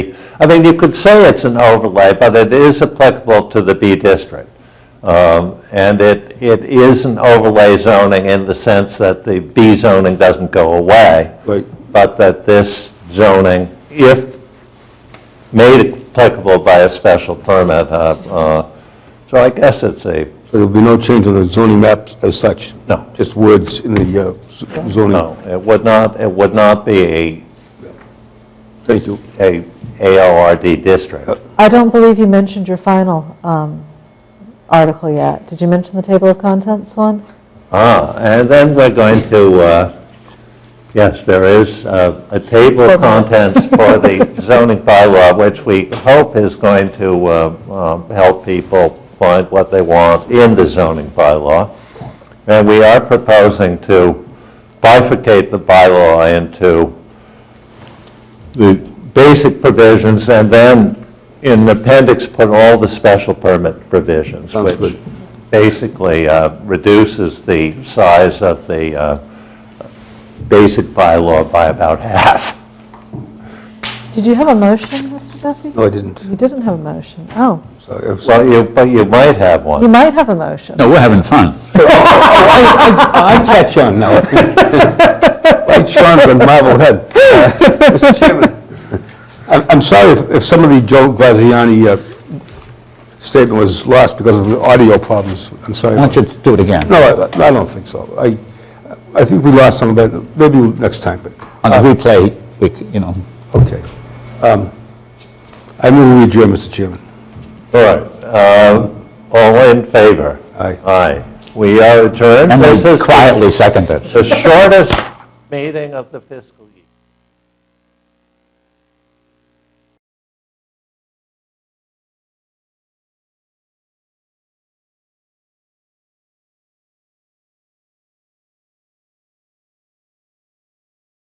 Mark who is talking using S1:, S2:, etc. S1: I mean, you could say it's an overlay, but it is applicable to the B district. Um, And it, it is an overlay zoning in the sense that the B zoning doesn't go away,
S2: Right.
S1: but that this zoning, if made applicable by a special permit, uh, uh, so I guess it's a,
S2: So there'll be no change on the zoning maps as such?
S1: No.
S2: Just words in the uh, z- zoning?
S1: no, it would not, it would not be
S2: Thank you.
S1: a, a ALRD district.
S3: I don't believe you mentioned your final um, article yet. Did you mention the table of contents one?
S1: Ah, and then we're going to, uh, yes, there is uh, a table of contents for the zoning bylaw, which we hope is going to uh, um, help people find what they want in the zoning bylaw. And we are proposing to bifurcate the bylaw into the basic provisions, and then in the appendix, put all the special permit provisions.
S2: Sounds
S1: Which
S2: good.
S1: basically uh, reduces the size of the uh, basic bylaw by about half.
S3: Did you have a motion, Mr. Duffy?
S2: No, I didn't.
S3: You didn't have a motion. Oh,
S2: Sorry. I was-
S1: Well, you, but you might have
S3: you
S1: one.
S3: might have a motion.
S4: No, we're having fun.
S2: I catch on now. Wait, Sean's a marvel head. Uh, Mr. Chairman, I'm I'm sorry if- if some of the Joe Graziani uh, statement was lost because of the audio problems. I'm sorry.
S4: Why don't you do it again?
S2: No, I I don't think so. I I think we lost some of that, maybe next time, but,
S4: On the replay, we, c- you know,
S2: okay. Um, I move we adjourn, Mr. Chairman.
S1: All right. Um, All in favor?
S2: Aye.
S1: Aye. We are adjourned.
S4: and
S1: This
S4: we
S1: is
S4: quietly second it.
S1: the shortest meeting of the fiscal year.